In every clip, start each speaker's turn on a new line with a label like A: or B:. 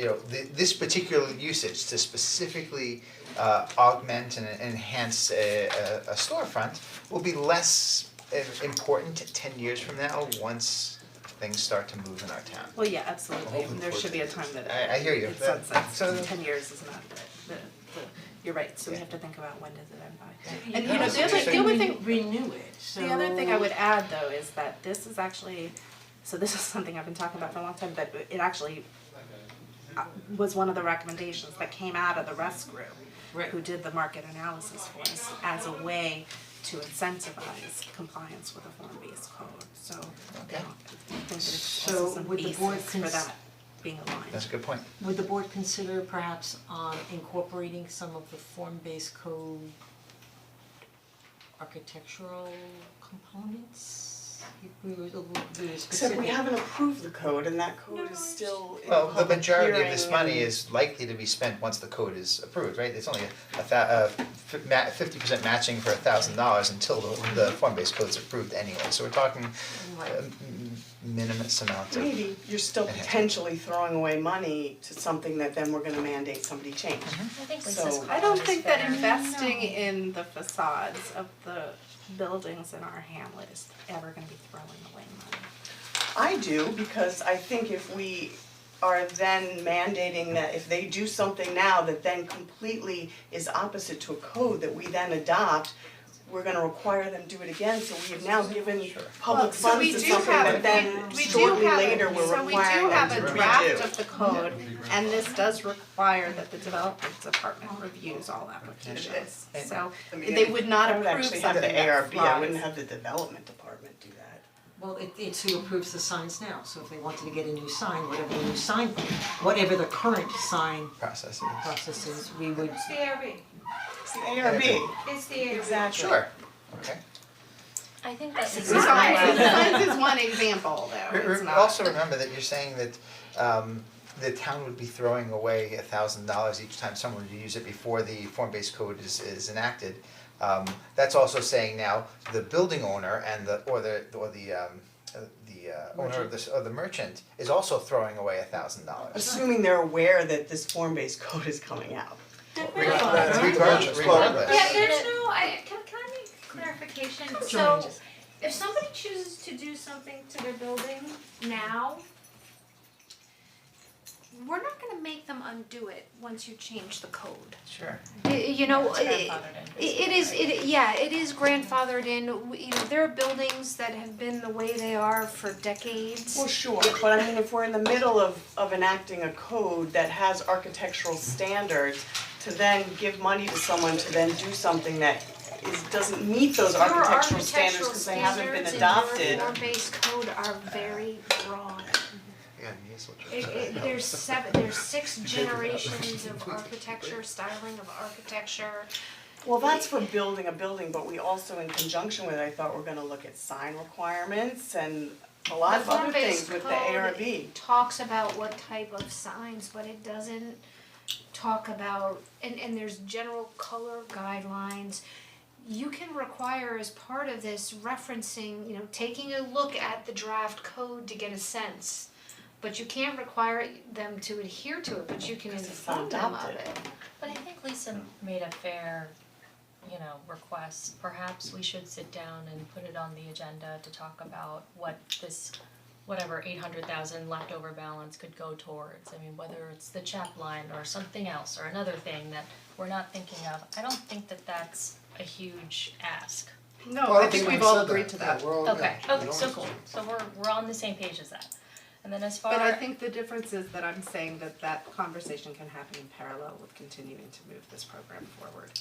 A: you know, thi- this particular usage to specifically uh augment and enhance a a a storefront will be less i- important ten years from now, once things start to move in our town.
B: Well, yeah, absolutely,
C: Hoping
B: there
C: for
B: should be a time that
A: I- I hear you.
B: it
A: That-
B: sunsets,
A: so-
B: ten years is not the, the, the, you're right, so we
A: Yeah.
B: have to think about when does it end by.
D: Yeah.
B: And you know, the other, the
A: Yeah.
B: other thing,
D: Renew it, so.
B: The other thing I would add though is that this is actually, so this is something I've been talking about for a long time, but it actually uh, was one of the recommendations that came out of the rescue
D: Right.
B: who did the market analysis for us as a way to incentivize compliance with the form-based code, so you know, I think that it's also
D: So
B: some
D: would the board
B: basis for
D: cons-
B: that being aligned.
A: That's a good point.
D: Would the board consider perhaps um incorporating some of the form-based code architectural components? If We were, we were
E: Except we
D: specific.
E: haven't approved the code and that code
B: No.
E: is still in
A: Well, the
E: public
A: majority of
E: hearing
A: this money
E: and-
A: is likely to be spent once the code is approved, right? It's only a thou- uh fi- ma- fifty percent matching for a thousand dollars until the the form-based code's approved anyway, so we're talking
D: Right.
A: a m- minimus amount of.
E: Maybe you're still
A: Enhancement.
E: potentially throwing away money to something that then we're gonna mandate somebody change.
B: Mm-hmm.
F: I think
E: So-
F: Lisa's
B: I don't
F: question
B: think
F: is
B: that
F: better.
B: investing in the facades of the buildings in our hamlet is ever gonna be throwing away money.
E: I do, because I think if we are then mandating that if they do something now that then completely is opposite to a code that we then adopt, we're gonna require them to do it again, so we have now given public
B: So
E: funds
B: we
E: to
B: do
E: something
B: have,
E: that
B: a-
E: then
B: we
E: shortly
B: do
E: later
B: have,
E: we're
B: so we do
E: requiring them to redo.
B: have a draft of the code, and this does require that the development department reviews all applications.
A: And-
B: So
E: I mean,
B: they would not
E: I would
B: approve
E: actually have the
B: something that
E: ARB, I wouldn't
B: flies.
E: have the development department do that.
D: Well, it it's who approves the signs now, so if they wanted to get a new sign, whatever the new sign, whatever the current sign
A: Processes.
D: process is, we would
G: It's the ARB,
E: It's the ARB,
G: it's the ARB.
E: exactly.
A: Sure, okay.
F: I think that
B: Signs,
F: Lisa's
B: signs is one example though,
A: Re- re-
B: it's not.
A: Also remember that you're saying that um the town would be throwing away a thousand dollars each time someone would use it before the form-based code is is enacted. Um that's also saying now the building owner and the or the or the um uh, the uh owner of this or the merchant is also throwing away a thousand dollars.
E: Assuming they're aware that this form-based code is coming out.
A: Regardless, regardless.
G: Yeah, there's no, I, can, can I make clarification? So, if somebody chooses to do something to their building now, we're not gonna make them undo it once you change the code.
A: Sure.
F: Y- You know, it
B: Grandfathered in.
F: it is, it, yeah, it is grandfathered in, We- you know, there are buildings that have been the way they are for decades.
E: Well, sure, but I mean, if we're in the middle of of enacting a code that has architectural standards, to then give money to someone to then do something that is, doesn't meet those
F: Your
E: architectural standards because they haven't been adopted.
F: Your architectural standards and your form-based code are very broad.
A: Yeah, you just-
F: It it there's seven, there's six generations of architecture, styling of architecture.
E: Well, that's for building a building, but we also in conjunction with, it, I thought we're gonna look at sign requirements and a lot of other things with the ARB.
F: The form-based code talks about what type of signs, but it doesn't talk about, and and there's general color guidelines. You can require as part of this referencing, you know, taking a look at the draft code to get a sense. But you can't require them to adhere to it, but you can
E: it's not
F: inform them of it.
E: adopted.
H: But I think Lisa made a fair, you know, request, perhaps we should sit down and put it on the agenda to talk about what this whatever eight hundred thousand leftover balance could go towards, I mean, whether it's the chap line or something else or another thing that we're not thinking of, I don't think that that's a huge ask.
B: No, I think we've all agreed to that,
H: Okay, okay, so cool, so we're we're on the same page as that, and then as far.
B: but I think the difference is that I'm saying that that conversation can happen in parallel with continuing to move this program forward.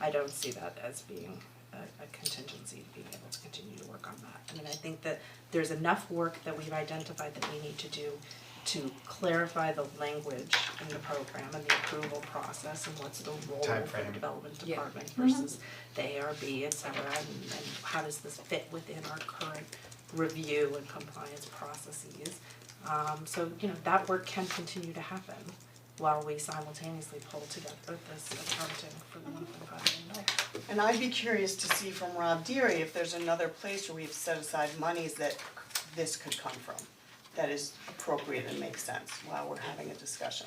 B: I don't see that as being a a contingency to being able to continue to work on that. I mean, I think that there's enough work that we've identified that we need to do to clarify the language in the program and the approval process and what's the role for the
A: Timeframe.
B: development department versus the ARB, et cetera, and and how does this fit within our current review and compliance processes. Um so, you know, that work can continue to happen while we simultaneously pull together this accounting for the one point five million dollars.
E: And I'd be curious to see from Rob Deary if there's another place where we've set aside monies that this could come from. that is appropriate and makes sense while we're having a discussion.